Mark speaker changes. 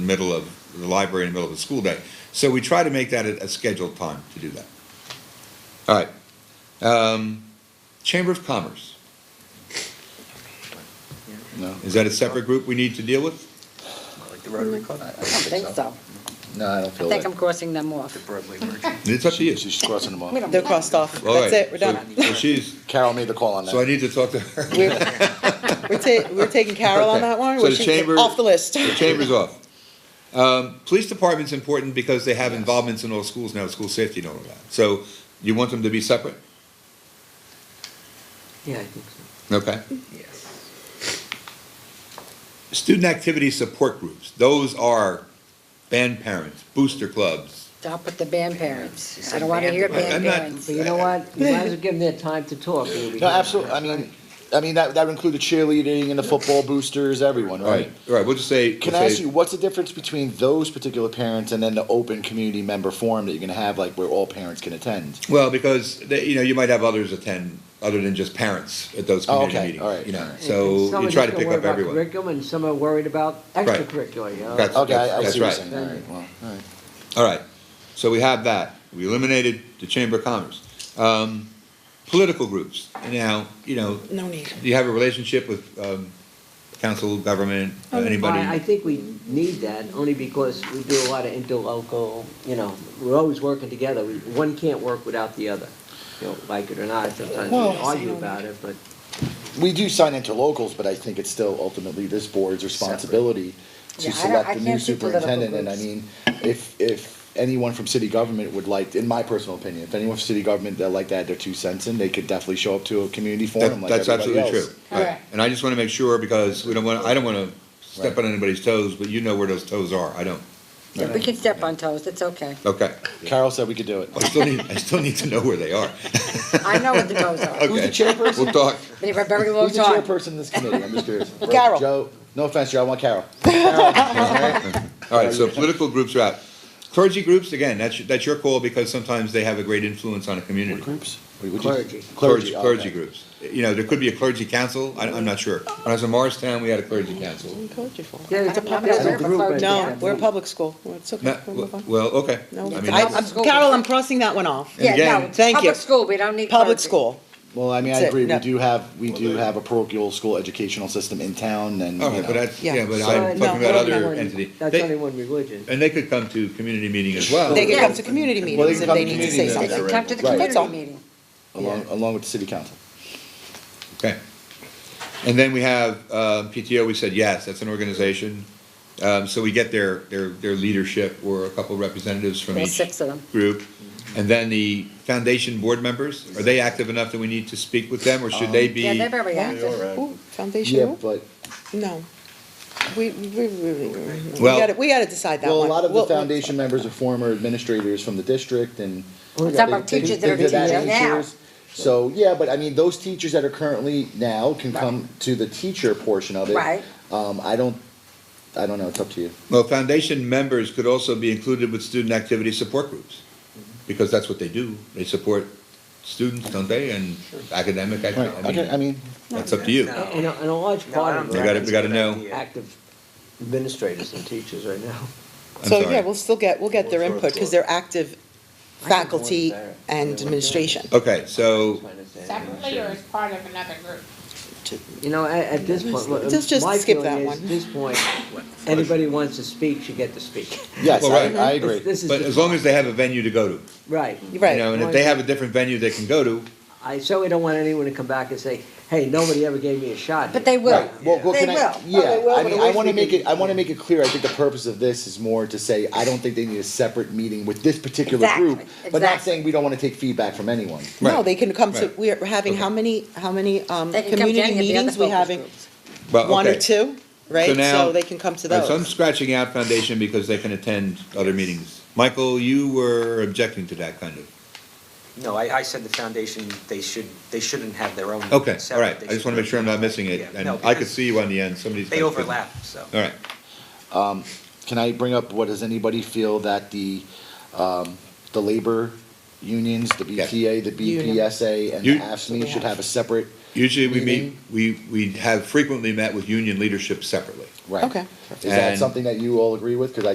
Speaker 1: middle of the library in the middle of the school day. So we try to make that a, a scheduled time to do that. All right. Um, Chamber of Commerce,
Speaker 2: No,
Speaker 1: is that a separate group we need to deal with?
Speaker 3: Like the Rotary Club?
Speaker 2: I don't
Speaker 3: The
Speaker 2: think
Speaker 4: Mm-hmm. think so.
Speaker 2: No, I don't
Speaker 4: I
Speaker 2: feel
Speaker 4: think I'm
Speaker 2: that.
Speaker 4: crossing them off.
Speaker 3: Broadway Merchant.
Speaker 1: It's up to you.
Speaker 2: She's crossing them
Speaker 4: We
Speaker 2: off.
Speaker 4: don't-
Speaker 5: They're crossed off.
Speaker 1: All right,
Speaker 5: That's it, we're
Speaker 1: so-
Speaker 5: done.
Speaker 1: So she's,
Speaker 2: Carol made the call on
Speaker 1: so I
Speaker 2: that.
Speaker 1: need to talk to her.
Speaker 5: We're we're ta- we're taking Carol on that one,
Speaker 1: Okay. So
Speaker 5: or
Speaker 1: the
Speaker 5: she,
Speaker 1: chamber-
Speaker 5: off the list.
Speaker 1: The chamber's off. Um, police department's important because they have involvements in all schools now, school safety and all of that. So you want them to be separate?
Speaker 3: Yeah, I think so.
Speaker 1: Okay.
Speaker 3: Yes.
Speaker 1: Student activity support groups, those are band parents, booster clubs,
Speaker 4: Stop with the band parents. I don't want to hear
Speaker 1: I'm
Speaker 4: band
Speaker 1: not-
Speaker 4: parents.
Speaker 6: But you know what? You might as well give them their time to talk. They'll be
Speaker 2: No,
Speaker 6: here.
Speaker 2: absolutely, I mean, I mean, that, that would include the cheerleading and the football boosters, everyone,
Speaker 1: All right,
Speaker 2: right?
Speaker 1: all right, we'll just say.
Speaker 2: Can I ask you, what's the difference between those particular parents and then the open community member forum that you're gonna have, like, where all parents can attend?
Speaker 1: Well, because, they- you know, you might have others attend, other than just parents at those
Speaker 2: Oh,
Speaker 1: community
Speaker 2: okay,
Speaker 1: meetings.
Speaker 2: all right,
Speaker 1: You
Speaker 2: all
Speaker 1: know,
Speaker 2: right.
Speaker 1: so
Speaker 6: Some
Speaker 1: you try
Speaker 6: are just
Speaker 1: to
Speaker 6: gonna
Speaker 1: pick
Speaker 6: worry
Speaker 1: up
Speaker 6: about
Speaker 1: everyone.
Speaker 6: Curriculum, and some are worried about extracurricular, you know?
Speaker 1: That's-
Speaker 2: Okay, I
Speaker 1: that's
Speaker 2: I see what you're
Speaker 1: right.
Speaker 2: saying, all right, well, all right.
Speaker 1: All right, so we have that. We eliminated the Chamber of Commerce. Um, Political groups, now, you know,
Speaker 5: No need.
Speaker 1: do you have a relationship with um, council, government,
Speaker 6: I I
Speaker 1: anybody?
Speaker 6: think we need that, only because we do a lot of interlocal, you know, we're always working together. We- One can't work without the other, you know, like it or not, sometimes we
Speaker 2: Well-
Speaker 6: argue about it, but
Speaker 2: We do sign interlocals, but I think it's still ultimately this board's responsibility
Speaker 4: Yeah,
Speaker 2: to
Speaker 4: I don't-
Speaker 2: select
Speaker 4: I
Speaker 2: the new
Speaker 4: can't do political
Speaker 2: superintendent, and I
Speaker 4: groups.
Speaker 2: mean, if, if anyone from city government would like, in my personal opinion, if anyone from city government that like to add their two cents in, they could definitely show up to a community
Speaker 1: That-
Speaker 2: forum like
Speaker 1: That's
Speaker 2: everybody
Speaker 1: absolutely
Speaker 2: else.
Speaker 1: true. All right.
Speaker 4: Correct.
Speaker 1: And I just want to make sure, because we don't want, I don't want to step
Speaker 2: Right.
Speaker 1: on anybody's toes, but you know where those toes are, I don't.
Speaker 4: We can step on toes, it's okay.
Speaker 1: Okay,
Speaker 2: Carol said we could do it.
Speaker 1: I still need, I still need to know where they are.
Speaker 4: I know what the goes are.
Speaker 1: Okay.
Speaker 2: Who's the chairperson?
Speaker 1: We'll talk.
Speaker 4: Been here a very long
Speaker 2: Who's the
Speaker 4: time.
Speaker 2: chairperson of this committee? I'm just curious.
Speaker 5: Carol.
Speaker 2: Joe, no offense, Joe, I want Carol.
Speaker 1: All right, so political groups are out. Clergy groups, again, that's, that's your call because sometimes they have a great influence on a community.
Speaker 2: Groups?
Speaker 6: Clergy.
Speaker 1: Clergy,
Speaker 2: Clergy,
Speaker 1: clergy
Speaker 2: okay.
Speaker 1: groups. You know, there could be a clergy council, I, I'm not sure. When I was in Morristown, we had a clergy council.
Speaker 6: yeah, it's a
Speaker 4: I'm not
Speaker 6: there's
Speaker 4: aware
Speaker 6: a
Speaker 4: of a
Speaker 6: group.
Speaker 4: clergy
Speaker 6: I
Speaker 5: No,
Speaker 6: think.
Speaker 5: we're a public school. It's okay.
Speaker 1: Not-
Speaker 5: We'll move on.
Speaker 1: well, okay.
Speaker 5: No,
Speaker 1: I
Speaker 5: it's-
Speaker 1: mean,
Speaker 5: I-
Speaker 1: that's-
Speaker 5: I'm- Carol, I'm crossing that one off.
Speaker 1: And
Speaker 4: Yeah, no,
Speaker 1: again-
Speaker 5: Thank you.
Speaker 4: public school, we don't need
Speaker 5: Public
Speaker 4: clergy.
Speaker 5: school.
Speaker 2: Well, I mean, I
Speaker 5: That's it,
Speaker 2: agree, we
Speaker 5: no.
Speaker 2: do have, we do have a parochial school educational system in town, and, you
Speaker 1: All right, but
Speaker 2: know.
Speaker 1: that's,
Speaker 5: Yeah.
Speaker 1: yeah, but
Speaker 5: So,
Speaker 1: I'm
Speaker 5: no,
Speaker 1: talking about
Speaker 5: no,
Speaker 1: other
Speaker 5: no.
Speaker 1: entity.
Speaker 6: That's
Speaker 1: They-
Speaker 6: only one religion.
Speaker 1: And they could come to community meeting as well.
Speaker 5: They could come
Speaker 4: Yeah.
Speaker 5: to community
Speaker 2: Well,
Speaker 5: meetings if
Speaker 2: come
Speaker 5: they
Speaker 2: to
Speaker 5: need to
Speaker 2: community
Speaker 5: say
Speaker 2: meetings,
Speaker 4: They can
Speaker 5: something.
Speaker 4: come to the
Speaker 2: Right.
Speaker 5: That's all.
Speaker 4: community meeting.
Speaker 2: Along, along with the city council.
Speaker 1: Okay. And then we have, uh, PTO, we said, yes, that's an organization. Um, so we get their, their, their leadership or a couple representatives from
Speaker 4: There's
Speaker 1: each
Speaker 4: six of them.
Speaker 1: group. And then the foundation board members, are they active enough that we need to speak with them or should they be?
Speaker 4: Yeah, they're very
Speaker 5: Yeah.
Speaker 4: active.
Speaker 5: Ooh,
Speaker 2: Yeah,
Speaker 5: Foundation,
Speaker 2: but,
Speaker 5: no. We, we, we, we- we, we
Speaker 1: Well-
Speaker 5: gotta, we gotta decide that one.
Speaker 2: well, a lot of the
Speaker 5: We'll-
Speaker 2: foundation members are former administrators from the district and.
Speaker 4: Some
Speaker 2: they-
Speaker 4: are
Speaker 2: they-
Speaker 4: teachers that are
Speaker 2: they're that
Speaker 4: teaching now.
Speaker 2: teachers. So, yeah, but I mean, those teachers that are currently now can come to the teacher portion of it.
Speaker 4: Right.
Speaker 2: Um, I don't, I don't know, it's up to you.
Speaker 1: Well, foundation members could also be included with student activity support groups, because that's what they do. They support students, don't they, and academic,
Speaker 2: Right,
Speaker 1: act-
Speaker 2: okay, I
Speaker 1: I mean,
Speaker 2: mean,
Speaker 1: that's up to you.
Speaker 3: No.
Speaker 6: And a, and a large
Speaker 3: No, I
Speaker 6: part
Speaker 3: don't
Speaker 6: of
Speaker 1: We
Speaker 3: think
Speaker 1: gotta-
Speaker 6: it,
Speaker 3: that's
Speaker 1: we gotta
Speaker 3: a good
Speaker 1: know.
Speaker 3: idea.
Speaker 6: active administrators and teachers right now.
Speaker 1: I'm
Speaker 5: So, yeah,
Speaker 1: sorry.
Speaker 5: we'll still get, we'll get their
Speaker 3: We'll throw
Speaker 5: input,
Speaker 3: it
Speaker 5: because
Speaker 3: to her.
Speaker 5: they're active
Speaker 6: I can go
Speaker 5: faculty
Speaker 6: with that.
Speaker 5: and
Speaker 6: Yeah.
Speaker 5: administration.
Speaker 1: Okay, so,
Speaker 6: That's my understanding.
Speaker 7: separately or as part of another group?
Speaker 6: You know, at, at this point, look,
Speaker 5: Just- just
Speaker 6: my
Speaker 5: skip
Speaker 6: feeling
Speaker 5: that
Speaker 6: is,
Speaker 5: one.
Speaker 6: at this point, anybody who wants to speak should get to speak.
Speaker 2: yes,
Speaker 1: Well,
Speaker 2: I,
Speaker 1: right.
Speaker 2: I agree.
Speaker 6: This is
Speaker 1: but
Speaker 6: just-
Speaker 1: as long as they have a venue to go to,
Speaker 6: Right.
Speaker 1: you
Speaker 5: Right.
Speaker 1: know, and if they have a different venue they can go to,
Speaker 6: I certainly don't want anyone to come back and say, hey, nobody ever gave me a shot.
Speaker 4: But they will.
Speaker 2: Right, well, well,
Speaker 4: They
Speaker 2: can I,
Speaker 4: will.
Speaker 2: yeah, I mean, I wanna
Speaker 6: we
Speaker 2: make
Speaker 6: could-
Speaker 2: it, I wanna make it clear, I think the purpose of this is more to say, I don't think they need a separate meeting with this particular
Speaker 4: Exactly,
Speaker 2: group, but not
Speaker 4: exactly.
Speaker 2: saying we don't wanna take feedback from anyone.
Speaker 5: No,
Speaker 1: Right.
Speaker 5: they can come to,
Speaker 1: Right.
Speaker 5: we're having how many, how many, um,
Speaker 4: They can come to
Speaker 5: community
Speaker 4: any of the other
Speaker 5: meetings we
Speaker 4: focus
Speaker 5: having?
Speaker 4: groups.
Speaker 1: well, Uh, okay.
Speaker 5: One or two, right?
Speaker 1: now-
Speaker 5: So they can come to
Speaker 1: All right, So I'm
Speaker 5: those.
Speaker 1: scratching out foundation because they can attend other meetings. Michael, you were objecting to that kind of,
Speaker 3: No, I, I said the foundation, they should, they shouldn't have their own.
Speaker 1: okay, all
Speaker 3: separate,
Speaker 1: right,
Speaker 3: they
Speaker 1: I just
Speaker 3: should
Speaker 1: wanna make
Speaker 3: have
Speaker 1: sure I'm
Speaker 3: their
Speaker 1: not missing it,
Speaker 3: Yeah,
Speaker 1: and
Speaker 3: no,
Speaker 1: I could
Speaker 3: because
Speaker 1: see you on the end, somebody's.
Speaker 3: They overlap, so.
Speaker 1: All right,
Speaker 2: Can I bring up, what does anybody feel that the, um, the labor unions, the
Speaker 1: Yes.
Speaker 2: BTA, the
Speaker 5: Union.
Speaker 2: BPSA, and
Speaker 1: You-
Speaker 2: the AFSCME should have a separate
Speaker 1: Usually we meet,
Speaker 2: meeting?
Speaker 1: we, we have frequently met with union leadership separately.
Speaker 2: Right.
Speaker 5: Okay.
Speaker 2: Is that
Speaker 1: And-
Speaker 2: something that you all agree with? Because